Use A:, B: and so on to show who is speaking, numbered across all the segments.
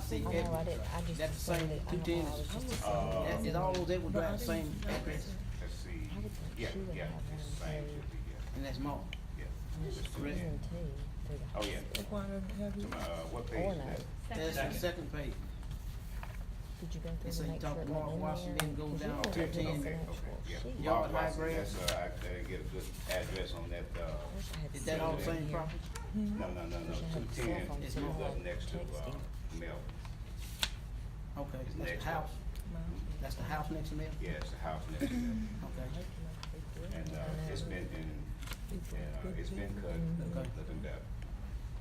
A: see
B: I know, I
A: every,
B: didn't, I just.
A: that's the same
B: explained it. I
A: two
B: know, I
A: tens,
B: was just explaining it.
A: that is uh, all those, they would drive the same address,
C: Let's see,
B: I would think
C: yeah,
B: she would
C: yeah,
B: have
C: it's the
B: one
C: same,
B: too.
C: should be, yeah,
A: and that's more.
C: yeah.
B: She was
C: Correct.
B: presenting through the
C: Oh, yeah.
B: hospital.
C: Tom- uh, what page
B: Or
C: is
B: no.
C: that?
A: That's the second page.
B: Did you go
A: They
B: through
A: say
B: and make sure
A: talk
B: it
A: to Mark
B: wasn't
A: Washington,
B: in
A: go
B: there?
A: down
B: 'Cause you were
C: Okay,
B: given
A: ten.
B: an
C: okay,
B: actual
C: okay, yeah.
B: sheet.
A: Yeah. Y'all
C: Bob
A: high
C: Watson,
A: grade?
C: that's, uh, I gotta get a good address on that, uh,
B: I wish I had
A: Is that all the
B: seen it
A: same
B: here.
A: property?
C: no, no, no, no,
B: Wish I had a
C: two
B: cell
C: ten
B: phone
C: is
A: too.
C: up next to, uh,
B: Texting.
A: Okay,
C: Mel. It's
A: that's
C: next
A: the
C: up.
A: house, that's the house next to me,
C: Yeah, it's the house next to them,
A: okay.
C: and, uh, it's been in, and, uh, it's been
B: Mm-hmm.
C: cut,
A: Okay.
C: looking better.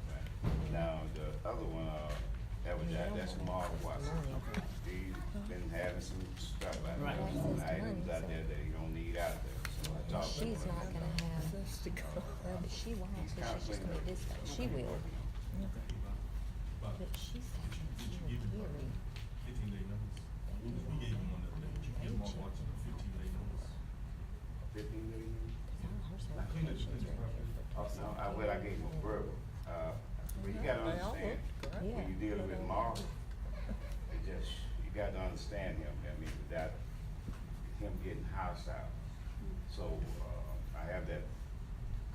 C: Right. Now, the other one, uh, that was, that- that's Mark Watson. He's
B: Uh-huh.
C: been having some stuff out
A: Right.
C: there, some items out there that he don't need out there, so I talked to him.
B: She's not gonna have, well, but she won't,
C: He's
B: cause she's just
C: kinda cleaning
B: gonna
C: up.
B: dispatch, she will, but she's
D: Did
B: having
D: you
B: a
D: give him
B: hearing.
D: a fifteen day notice? We we gave him one the other day. Did you give him a watching a fifteen day notice?
C: Fifteen million?
B: All her
D: cleaned it,
B: certifications
D: it's
B: are in there for
C: Oh, no, I, well, I gave him a verbal, uh, but you gotta understand,
B: Yeah.
C: when you deal with Mark, it just, you gotta understand him, I mean, without him getting hostile. So, uh, I have that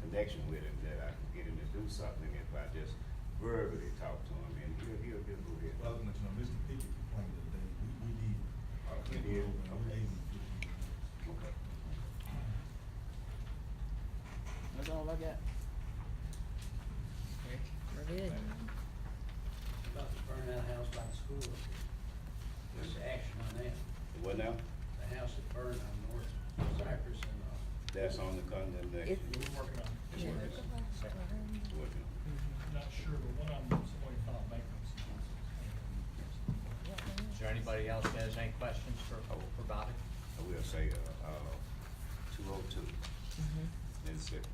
C: connection with him, that I can get him to do something if I just verbally talk to him, and he'll, he'll just go ahead.
D: Well, I was gonna let you know, Mr. Pickett complained the other day, we, we did.
C: Oh, you
D: Sent him
C: did?
D: over
C: Okay.
D: and We gave him fifteen day notice.
C: Okay.
A: That's all I got.
B: We're good.
E: About to burn that house by the school. There's action on that.
C: What now?
E: The house that burned on North Cypress and, uh,
C: That's on the condemnation.
B: It-
F: We're working on,
C: It's working. It's working.
F: I'm not sure, but one of them, somebody filed bankruptcy.
G: Is there anybody else that has any questions for, for Bobby?
C: I will say, uh, two oh two,
B: Mm-hmm.
C: Mississippi.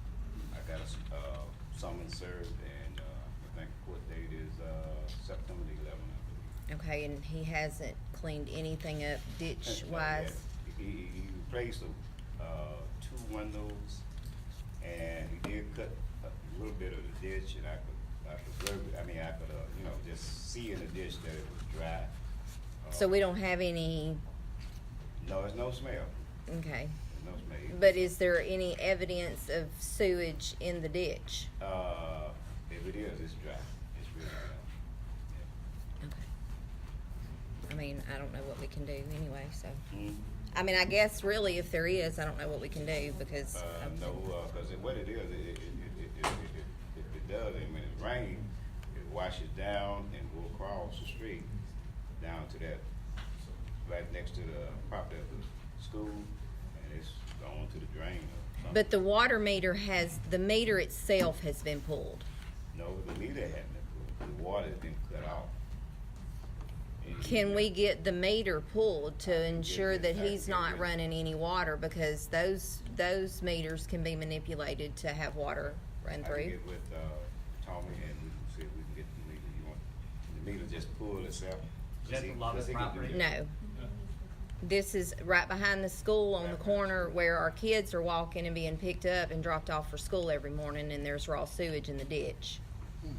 C: I got a, s- uh, summons served and, uh, I think court date is, uh, September the eleventh, I believe.
B: Okay, and he hasn't cleaned anything up ditch wise?
C: He, he he replaced, uh, two windows and he did cut a little bit of the ditch and I could, I could, ver- I mean, I could, uh, you know, just see in the ditch that it was dry. Uh,
B: So we don't have any,
C: No, there's no smell,
B: okay,
C: there's no smell.
B: but is there any evidence of sewage in the ditch?
C: Uh, if it is, it's dry, it's really dry. Yeah.
B: Okay. I mean, I don't know what we can do anyway, so,
C: Mm,
B: I mean, I guess really if there is, I don't know what we can do because.
C: Uh,
B: of-
C: no, uh 'cause it what it is, it, it, it, it, it, it, it, if it does, and when it rains, it washes down and will cross the street down to that, right next to the property of the school, and it's going to the drain or something.
B: But the water meter has, the meter itself has been pulled.
C: No, the meter hadn't, been pulled. the water's been cut off. And-
B: Can we get the meter pulled to ensure that he's not running any water because those, those meters can be manipulated to have water run
C: I can
B: through?
C: get with, uh, Tommy and we can see if we can get the meter, you want, the meter just pull itself.
G: Is that the Lovett
C: Does he- does he can do
G: property?
C: that?
B: No. This is right behind the school on the corner where our kids are walking and being picked up and dropped off for school every morning and there's raw sewage in the ditch.
C: And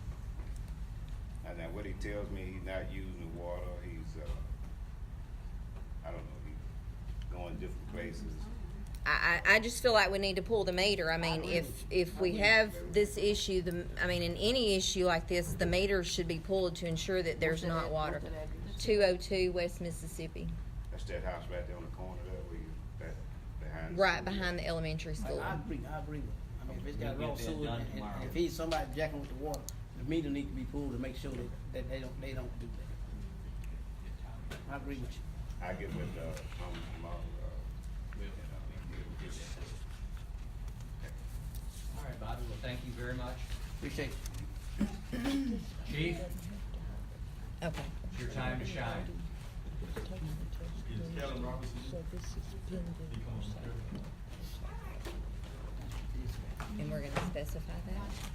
C: now what he tells me, he's not using the water, he's, uh, I don't know, he's going different places.
B: I, I I just feel like we need to pull the meter. I mean, if, if we have this issue, the, I mean, in any issue like this, the meter should be pulled to ensure that there's not water. Two oh two West Mississippi,
C: That's that house right there on the corner there where you, that, behind. the
B: right
C: school.
B: behind the elementary school.
A: I agree, I agree with him. I mean, if it's got
G: We'll
A: raw
G: get that
A: sewage,
G: done
A: and- and
G: tomorrow.
A: if he's somebody jacking with the water, the meter need to be pulled to make sure that, that they don't, they don't do that. I agree with you.
C: I get with, uh, Tom tomorrow, uh, and, uh, get that.
G: All right, Bobby, well, thank you very much.
A: Appreciate it.
G: Chief,
B: Okay.
G: it's your time to shine.
D: Is Kevin Robinson,
B: So this is pending.
D: he comes from there?
B: And we're gonna specify that?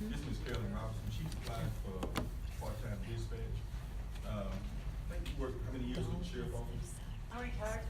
D: This is Carolyn Robinson, she applied for
B: Então, é
D: part-time dispatch. Um, I think you worked, how many years with the sheriff office?
H: I'm retired
D: um,